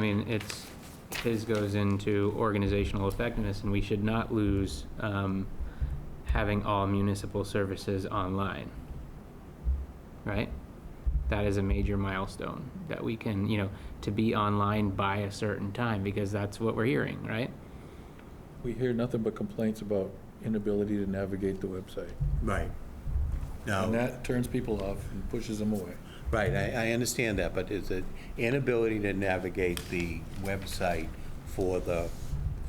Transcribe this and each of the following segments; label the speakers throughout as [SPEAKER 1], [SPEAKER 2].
[SPEAKER 1] I mean, it's, his goes into organizational effectiveness, and we should not lose um, having all municipal services online, right? That is a major milestone, that we can, you know, to be online by a certain time, because that's what we're hearing, right?
[SPEAKER 2] We hear nothing but complaints about inability to navigate the website.
[SPEAKER 3] Right.
[SPEAKER 2] And
[SPEAKER 3] No,
[SPEAKER 2] that turns people off and pushes them away.
[SPEAKER 3] right, I, I understand that, but is it inability to navigate the website for the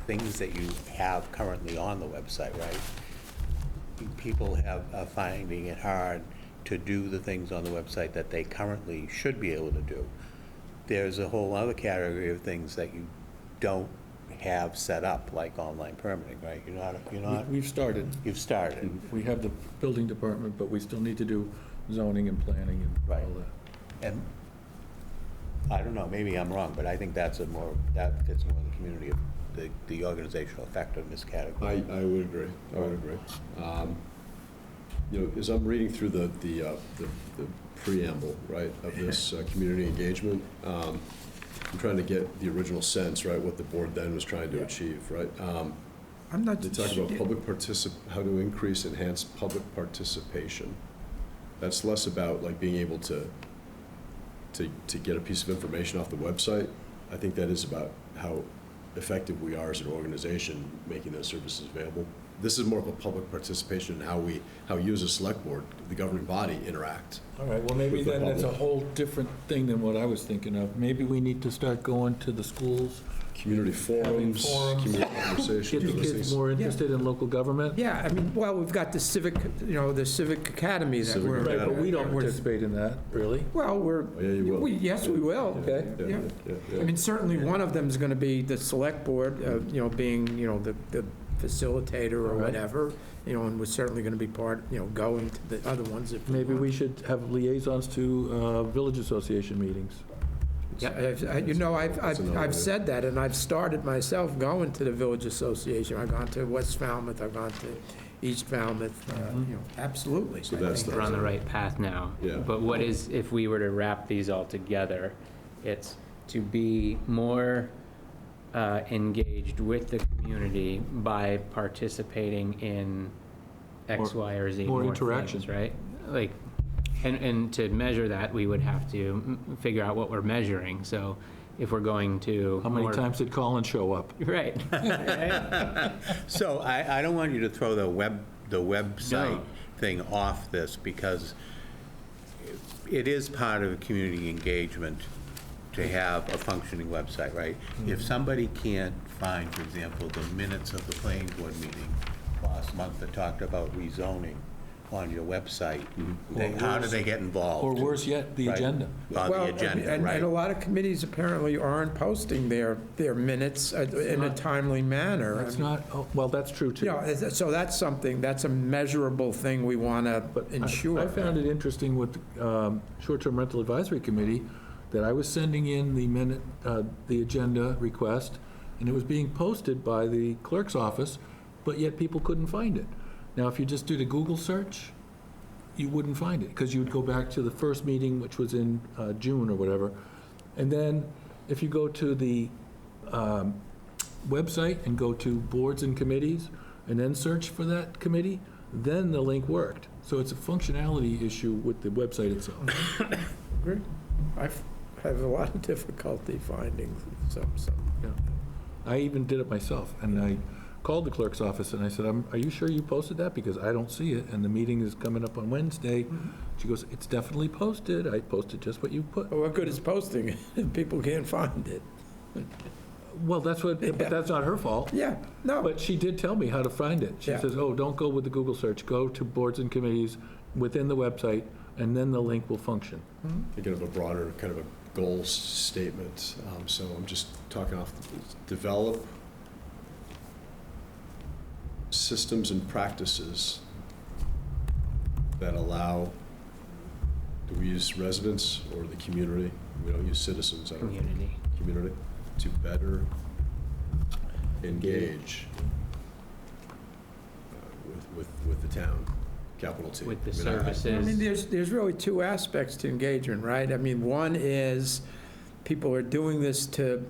[SPEAKER 3] things that you have currently on the website, right? People have, are finding it hard to do the things on the website that they currently should be able to do. There's a whole other category of things that you don't have set up, like online permitting, right? You're not, you're
[SPEAKER 2] We-
[SPEAKER 3] not,
[SPEAKER 2] We've started.
[SPEAKER 3] you've started.
[SPEAKER 2] We have the building department, but we still need to do zoning and planning and all
[SPEAKER 3] Right.
[SPEAKER 2] that.
[SPEAKER 3] And, I don't know, maybe I'm wrong, but I think that's a more, that fits more in the community of the, the organizational effectiveness
[SPEAKER 4] I,
[SPEAKER 3] category.
[SPEAKER 4] I would agree, I would agree. Um, You know, as I'm reading through the, the, uh, the the preamble, right, of this uh, community engagement, um, I'm trying to get the original sense, right, what the board then was trying to achieve, right? Um,
[SPEAKER 5] I'm not.
[SPEAKER 4] They talk about public particip, how to increase, enhance public participation. That's less about like being able to, to, to get a piece of information off the website. I think that is about how effective we are as an organization making those services available. This is more of a public participation in how we, how you as a select board, the governing body, interact.
[SPEAKER 2] All right, well, maybe
[SPEAKER 4] With the
[SPEAKER 2] then that's a
[SPEAKER 4] public.
[SPEAKER 2] whole different thing than what I was thinking of. Maybe we need to start going to the schools,
[SPEAKER 4] Community forums,
[SPEAKER 2] forums.
[SPEAKER 4] community conversations.
[SPEAKER 2] get the
[SPEAKER 4] those
[SPEAKER 2] kids
[SPEAKER 4] things.
[SPEAKER 2] more interested in local government.
[SPEAKER 5] Yeah, I mean, well, we've got the civic, you know, the civic academy that
[SPEAKER 4] Civic
[SPEAKER 5] we're.
[SPEAKER 2] Right, but we don't
[SPEAKER 5] we're-
[SPEAKER 2] participate in that, really.
[SPEAKER 5] Well, we're.
[SPEAKER 4] Oh, Yeah, you will.
[SPEAKER 5] we- Yes, we will.
[SPEAKER 2] Okay.
[SPEAKER 4] Yeah,
[SPEAKER 5] Yeah.
[SPEAKER 4] yeah, yeah, yeah.
[SPEAKER 5] I mean, certainly one of them is going to be the select board, uh, you know, being, you know, the the facilitator or
[SPEAKER 2] All right.
[SPEAKER 5] whatever, you know, and we're certainly going to be part, you know, going to the other ones if.
[SPEAKER 2] Maybe
[SPEAKER 5] want.
[SPEAKER 2] we should have liaisons to uh, village association meetings.
[SPEAKER 5] Yeah, I've- I- you know, I've,
[SPEAKER 4] That's
[SPEAKER 5] I've
[SPEAKER 4] another way.
[SPEAKER 5] I've said that, and I've started myself going to the Village Association. I've gone to West Falmouth, I've gone to East Falmouth, uh,
[SPEAKER 2] Mm-hmm.
[SPEAKER 5] you know, absolutely.
[SPEAKER 4] So
[SPEAKER 5] I
[SPEAKER 4] that's
[SPEAKER 5] think
[SPEAKER 4] the-
[SPEAKER 1] We're on the right path now.
[SPEAKER 4] Yeah.
[SPEAKER 1] But what is, if we were to wrap these all together, it's to be more uh, engaged with the community by participating in X,
[SPEAKER 2] More-
[SPEAKER 1] Y, or Z.
[SPEAKER 2] more
[SPEAKER 1] more things,
[SPEAKER 2] interaction.
[SPEAKER 1] Right? Like, and, and to measure that, we would have to mm, figure out what we're measuring. So if we're going to.
[SPEAKER 2] How many
[SPEAKER 1] more-
[SPEAKER 2] times did Colin show up?
[SPEAKER 1] Right.
[SPEAKER 3] So I, I don't want you to throw the web, the website thing off this, because it is part of community engagement to have a functioning website, right? If somebody can't find, for example, the minutes of the planning board meeting last month that talked about rezoning on your website, they-
[SPEAKER 2] Or
[SPEAKER 3] how do
[SPEAKER 2] worse-
[SPEAKER 3] they get involved?
[SPEAKER 2] Or worse yet, the
[SPEAKER 3] Right.
[SPEAKER 2] agenda.
[SPEAKER 3] On
[SPEAKER 5] Well,
[SPEAKER 3] the agenda,
[SPEAKER 5] and-
[SPEAKER 3] right.
[SPEAKER 5] And a lot of committees apparently aren't posting their, their minutes uh, in a timely manner. I
[SPEAKER 2] That's
[SPEAKER 5] mean,
[SPEAKER 2] not, oh, well, that's true, too.
[SPEAKER 5] You know, is- so that's something, that's a measurable thing we want to
[SPEAKER 2] But I-
[SPEAKER 5] ensure.
[SPEAKER 2] I found it interesting with um, Short-Term Rental Advisory Committee, that I was sending in the minute, uh, the agenda request, and it was being posted by the clerk's office, but yet people couldn't find it. Now, if you just did a Google search, you wouldn't find it, because you would go back to the first meeting, which was in uh, June or whatever. And then, if you go to the um, website and go to boards and committees, and then search for that committee, then the link worked. So it's a functionality issue with the website itself.
[SPEAKER 5] Agree. I f- have a lot of difficulty finding some, some.
[SPEAKER 2] Yeah. I even did it myself, and I called the clerk's office, and I said, "Um, are you sure you posted that? Because I don't see it, and the meeting is coming up on Wednesday. She goes, it's definitely posted, I posted just what you put.
[SPEAKER 5] But What good is posting it if people can't find it?
[SPEAKER 2] Well, that's what, but that's not her fault.
[SPEAKER 5] Yeah, no,
[SPEAKER 2] But she did tell me how to find it. She
[SPEAKER 5] Yeah.
[SPEAKER 2] says, oh, don't go with the Google search, go to boards and committees within the website, and then the link will function.
[SPEAKER 4] thinking of a broader kind of a goal s- statement, um, so I'm just talking off, the- develop systems and practices that allow, do we use residents or the community? We don't use citizens, I don't think,
[SPEAKER 1] Community.
[SPEAKER 4] community, to better engage uh, with, with, with the town, capital T.
[SPEAKER 1] With the
[SPEAKER 4] I mean, I- I-
[SPEAKER 5] I mean,
[SPEAKER 1] services.
[SPEAKER 5] there's, there's really two aspects to engagement, right? I mean, one is people are doing this to